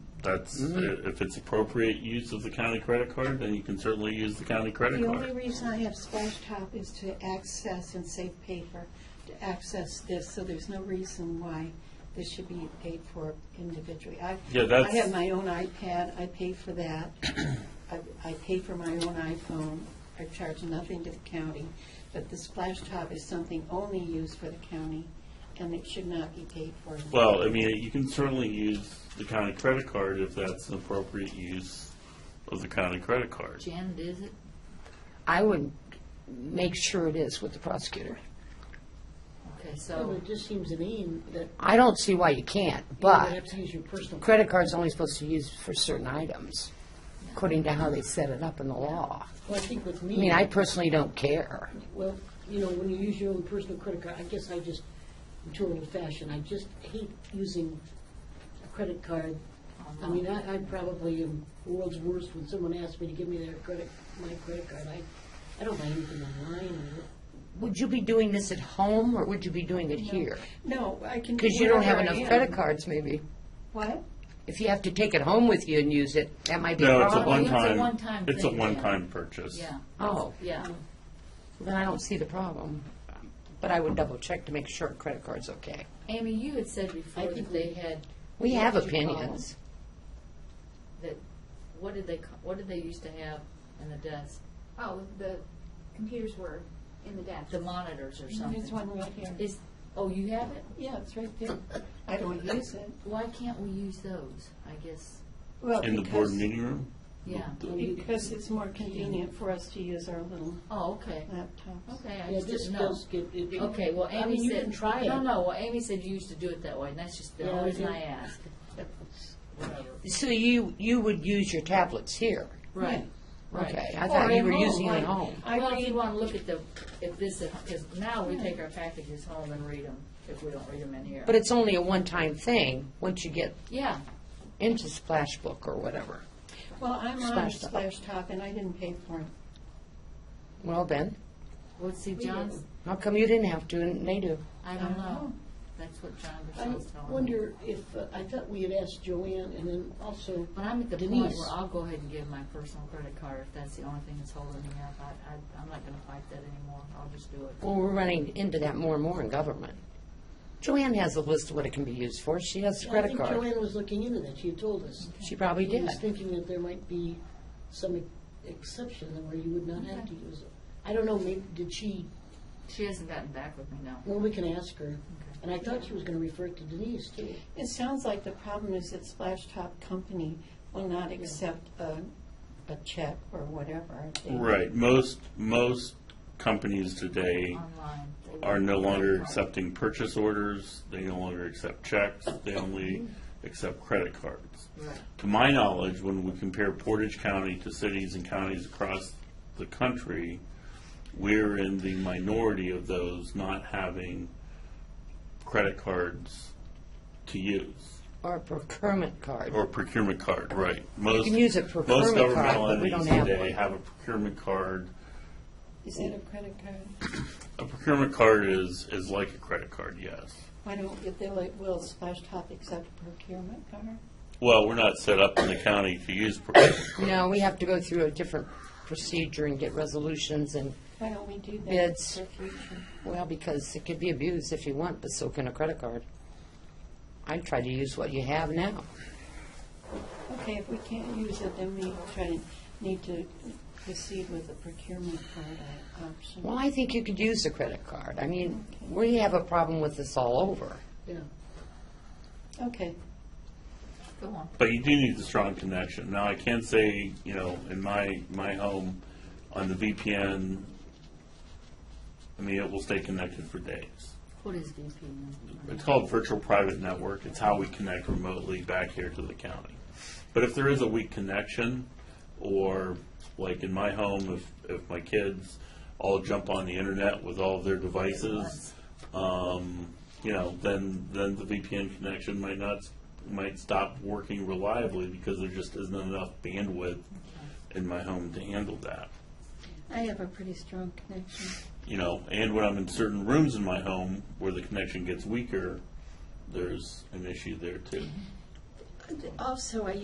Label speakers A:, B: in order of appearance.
A: That's,
B: Mm-hmm.
A: i- if it's appropriate use of the county credit card, then you can certainly use the county credit
C: The only
A: card.
C: reason I have splash top is to access and save paper, to access this, so there's no reason why this should be paid for individually. I-
A: Yeah, that's-
C: I have my own iPad, I pay for that. I, I pay for my own iPhone, I charge nothing to the county, but the splash top is something only used for the county, and it should not be paid for.
A: Well, I mean, you can certainly use the county credit card if that's an appropriate use of the county credit card.
B: Jen, is it?
D: I would make sure it is with the prosecutor.
B: Okay,
E: Well,
B: so,
E: It just seems to me that
D: I don't see why you can't,
E: you have
D: but
E: to use your personal.
D: credit card's only supposed to use for certain items, according to how they set it up in the law.
E: Well, I think with me.
D: I mean, I personally don't care.
E: Well, you know, when you use your own personal credit card, I guess I just, I'm too old fashioned. I just hate using a credit card.
B: Uh-huh.
E: I mean, I, I probably am the world's worst when someone asks me to give me their credit, my credit card. I, I don't buy anything online.
D: Would you be doing this at home, or would you be doing it here?
C: No, I can.
D: Because you don't have
C: wherever I
D: enough
C: am.
D: credit cards, maybe.
C: What?
D: If you have to take it home with you and use it, that might be a
A: No,
D: problem.
A: it's a
B: Probably. It's a
A: one-time,
B: one-time
A: it's a
B: thing, yeah.
A: one-time purchase.
B: yeah,
D: Oh,
B: yeah.
D: then I don't see the problem. But I would double check to make sure credit card's okay.
B: Amy, you had said before that they had,
D: We
B: What
D: have
B: would you call
D: opinions.
B: that, what did they, ca- what did they used to have in the desk?
F: Oh, the computers were in the desk.
B: The monitors or something?
C: There's one right here.
B: Is, oh, you have it?
C: Yeah, it's right there. I don't use it.
B: Why can't we use those, I guess?
C: Well,
A: In the board
C: because-
A: meeting room?
B: Yeah,
C: Because it's more convenient for us to use our little
B: oh, okay,
C: laptops.
B: okay, I
E: Yeah,
B: just
E: this
B: didn't know.
E: does get. it- it-
B: Okay, well,
E: I
B: Amy
E: mean,
B: said.
E: you can try it.
B: No, no, well, Amy said you used to do it that way, and that's just the
E: Yeah, I
B: only reason
E: do.
B: I asked.
D: So you, you would use your tablets here?
B: Right, right.
D: Okay, I thought you were using it at home.
C: I
B: Well, if you
C: read,
B: want to look at the, if this, because now we take our packages home and read them, if we don't read them in here.
D: But it's only a one-time thing, once you get
B: Yeah,
D: into Splashbook or whatever.
C: well, I'm on
D: Splash Top.
C: Splash Top and I didn't pay for it.
D: Well then,
B: well, see, John's,
D: how come you didn't have to and they do?
B: I don't know. That's what John
E: Uh-huh. I
B: Bichelle's telling me.
E: wonder if, uh, I thought we had asked Joanne and then also.
B: But I'm at the point
E: Denise.
B: where I'll go ahead and give my personal credit card if that's the only thing that's holding me up. I, I, I'm not gonna fight that anymore. I'll just do it.
D: Well, we're running into that more and more in government. Joanne has a list of what it can be used for. She has a credit
E: I think
D: card.
E: Joanne was looking into that, she had told us.
D: She probably
E: She
D: did.
E: was thinking that there might be some e, exception where you would not have to use it. I don't know, maybe, did she,
B: She hasn't gotten back with me, no.
E: well, we can ask her. And I thought she was gonna refer it to Denise too.
C: It sounds like the problem is that Splash Top Company will not accept a, a check or whatever. They-
A: Right, most, most companies today
B: Online. They
A: are no
B: won't-
A: longer accepting purchase orders, they no longer accept checks, they only accept credit cards.
B: Right.
A: To my knowledge, when we compare Portage County to cities and counties across the country, we're in the minority of those not having credit cards to use,
D: Or a procurement card.
A: or procurement card, right. Most
D: can use a
A: Most
D: procurement card,
A: governmental
D: but we don't
A: entities
D: have
A: today
D: one.
A: have a procurement card.
C: Is that a credit card?
A: A procurement card is, is like a credit card, yes.
C: Why don't, if they're like, will Splash Top accept a procurement card?
A: Well, we're not set up in the county to use procurement.
D: No, we have to go through a different procedure and get resolutions and,
C: Why don't we do that
D: Bids.
C: for future?
D: well, because it could be abused if you want, but so can a credit card. I try to use what you have now.
C: Okay, if we can't use it, then we try to, need to proceed with the procurement card uh, option.
D: Well, I think you could use a credit card. I mean, we have a problem with this all over.
E: Yeah.
C: Okay,
B: Go on.
A: But you do need the strong connection. Now, I can say, you know, in my, my home, on the VPN, I mean, it will stay connected for days.
B: What is VPN?
A: It's called virtual private network. It's how we connect remotely back here to the county. But if there is a weak connection, or like in my home, if, if my kids all jump on the internet with all their devices, um, you know, then, then the VPN connection might not, might stop working reliably because there just isn't enough bandwidth in my home to handle that
C: I have a pretty strong connection.
A: you know, and when I'm in certain rooms in my home where the connection gets weaker, there's an issue there too.
C: Also, I